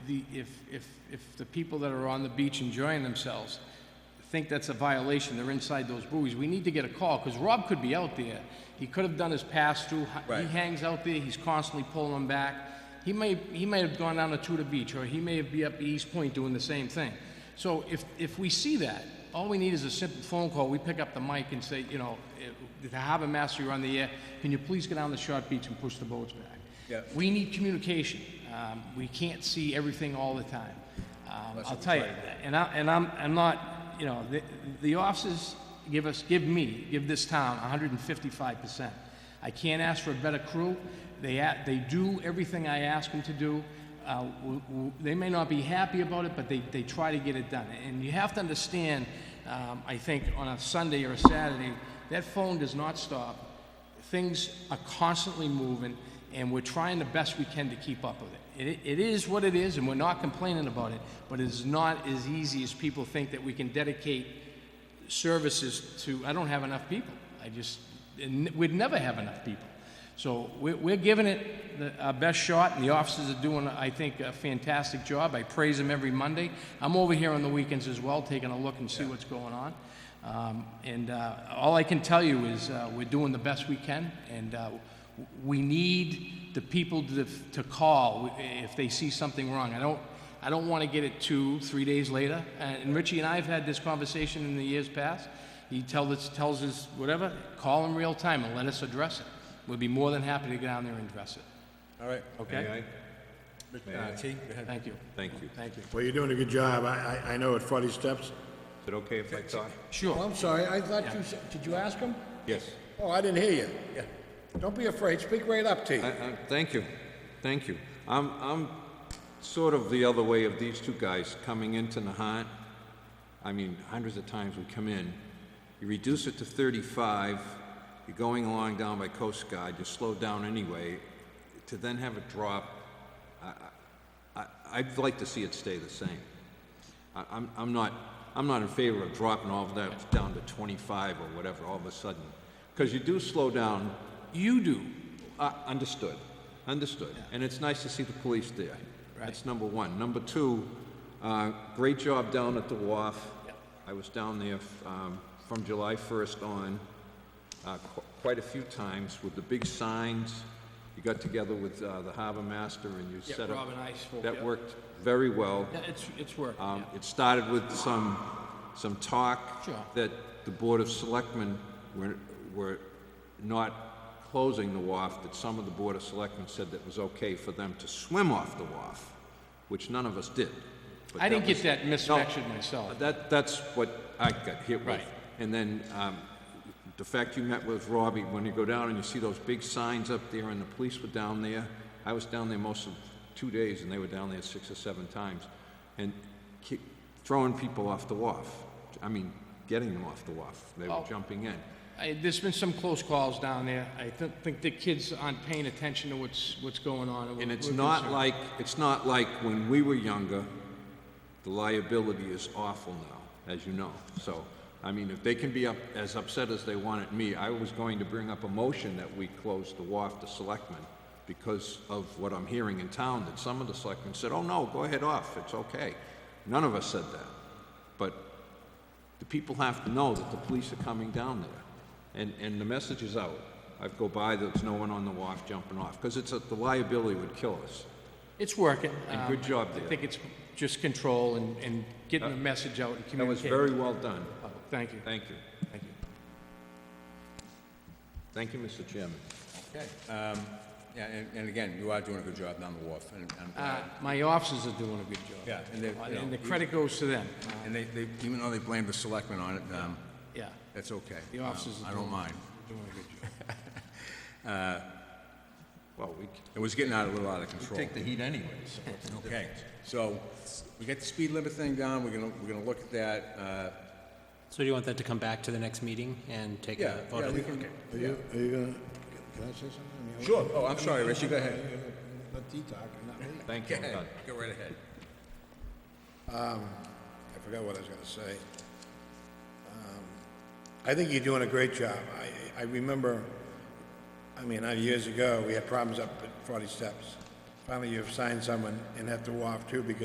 the, if, if, if the people that are on the beach enjoying themselves think that's a violation, they're inside those buoys, we need to get a call, because Rob could be out there. He could have done his pass-through. He Right. hangs out there, he's constantly pulling them back. He may, he may have gone down to Tudor Beach, or he may be up East Point doing the same thing. So if, if we see that, all we need is a simple phone call. We pick up the mic and say, you know, eh, the harbor master, you're on the air, can you please go down to Short Beach and push the boats back? Yeah. We need communication. Um, we can't see everything all the time. Um, I'll tell you, and I, and I'm, I'm not, you know, the, the officers give us, give me, give this town hundred and fifty-five percent. I can't ask for a better crew. They, a- they do everything I ask them to do. Uh, w- w- they may not be happy about it, but they, they try to get it done. And you have to understand, um, I think, on a Sunday or a Saturday, that phone does not stop things are constantly moving, and we're trying the best we can to keep up with it. It, it is what it is, and we're not complaining about it, but it's not as easy as people think that we can dedicate services to, I don't have enough people. I just, and we'd never have enough people. So we're, we're giving it the, our best shot, and the officers are doing, I think, a fantastic job. I praise them every Monday. I'm over here on the weekends as well, taking a look and see what's going on. Um, and uh, all I can tell you is uh, we're doing the best we can, and uh, we need the people to, to call if they see something wrong. I don't, I don't want to get it two, three days later. And and Richie and I have had this conversation in the years past. He tell us, tells us whatever, call him real time and let us address it. We'd be more than happy to get down there and address it. All right. Okay? Mr. T, go ahead. Thank you. Thank you. Thank you. Well, you're doing a good job. I, I, I know at Forty Steps. Is it okay if I talk? Oh, Sure. I'm sorry, I thought you, said- did you ask him? Yes. Oh, I didn't hear you. Yeah. Don't be afraid, speak right up, T. I- I- Thank you, thank you. I'm, I'm sort of the other way of these two guys coming into Nahant. I mean, hundreds of times we come in, you reduce it to 35, you're going along down by Coast Guard, you slow down anyway, to then have it drop, I, I, I- I'd like to see it stay the same. I- I'm, I'm not, I'm not in favor of dropping all of that down to 25 or whatever all of a sudden. Because you do slow down. You do. Uh, understood, understood. And it's nice to see the police there. That's number one. Number two, uh, great job down at the wharf. I was down there um, from July 1st on uh, qu- quite a few times with the big signs. You got together with uh, the harbor master and you Yeah, set up. Rob and I spoke, That yeah. worked very well. Yeah, It's, it's work. Um, It started with some, some talk Sure. that the Board of Selectmen were, were not closing the wharf, that some of the Board of Selectmen said that was okay for them to swim off the wharf, which none of us did. But I didn't that get was- that misfactured No, myself. That, that's what I got hit with. Right. And then, um, the fact you met with Robbie, when you go down and you see those big signs up there and the police were down there, I was down there most of two days and they were down there six or seven times. And ki- throwing people off the wharf. I mean, getting them off the wharf. They were jumping in. I, there's been some close calls down there. I th- think the kids aren't paying attention to what's, what's going on. we're- And it's we're not concerned. like, it's not like when we were younger, the liability is awful now, as you know. So, I mean, if they can be up, as upset as they want at me, I was going to bring up a motion that we close the WAF to selectmen because of what I'm hearing in town, that some of the selectmen said, oh, no, go ahead off, it's okay. None of us said that. But the people have to know that the police are coming down there. And, and the message is out. I go by, there's no one on the WAF jumping off, because it's, a- the liability would kill us. It's working. And Um, good job I there. think it's just control and, and getting the message out and That was communicating. Oh, very well done. Thank you. Thank you. Thank you. Thank you, Mr. Chairman. Okay. um, Yeah, and, and again, you are doing a good job down the wharf, and, and, Uh, My officers are doing a good job. Uh, yeah, and they, you know, And the credit goes to them. And they, they, even though they blame the selectmen on it, um, Yeah. that's okay. Um, The officers are I don't doing- mind. Doing a good job. Well, we c- It was getting out, a little out of control. take the heat anyway, so what's the Okay, so we got the speed limit thing down, we're gonna, we're gonna look at that, uh, So do you want that to come back to the next meeting and take yeah, a vote? yeah, on we it? can, Are you, are you gonna, can I say something? Sure. Oh, I'm sorry, Richie, go ahead. Let T talk, not me. Thank go you, I'm ahead, done. go right ahead. I forgot what I was gonna say. Um, I think you're doing a great job. I, I remember, I mean, uh, years ago, we had problems up at Forty Steps. Finally, you've signed someone and have to walk too because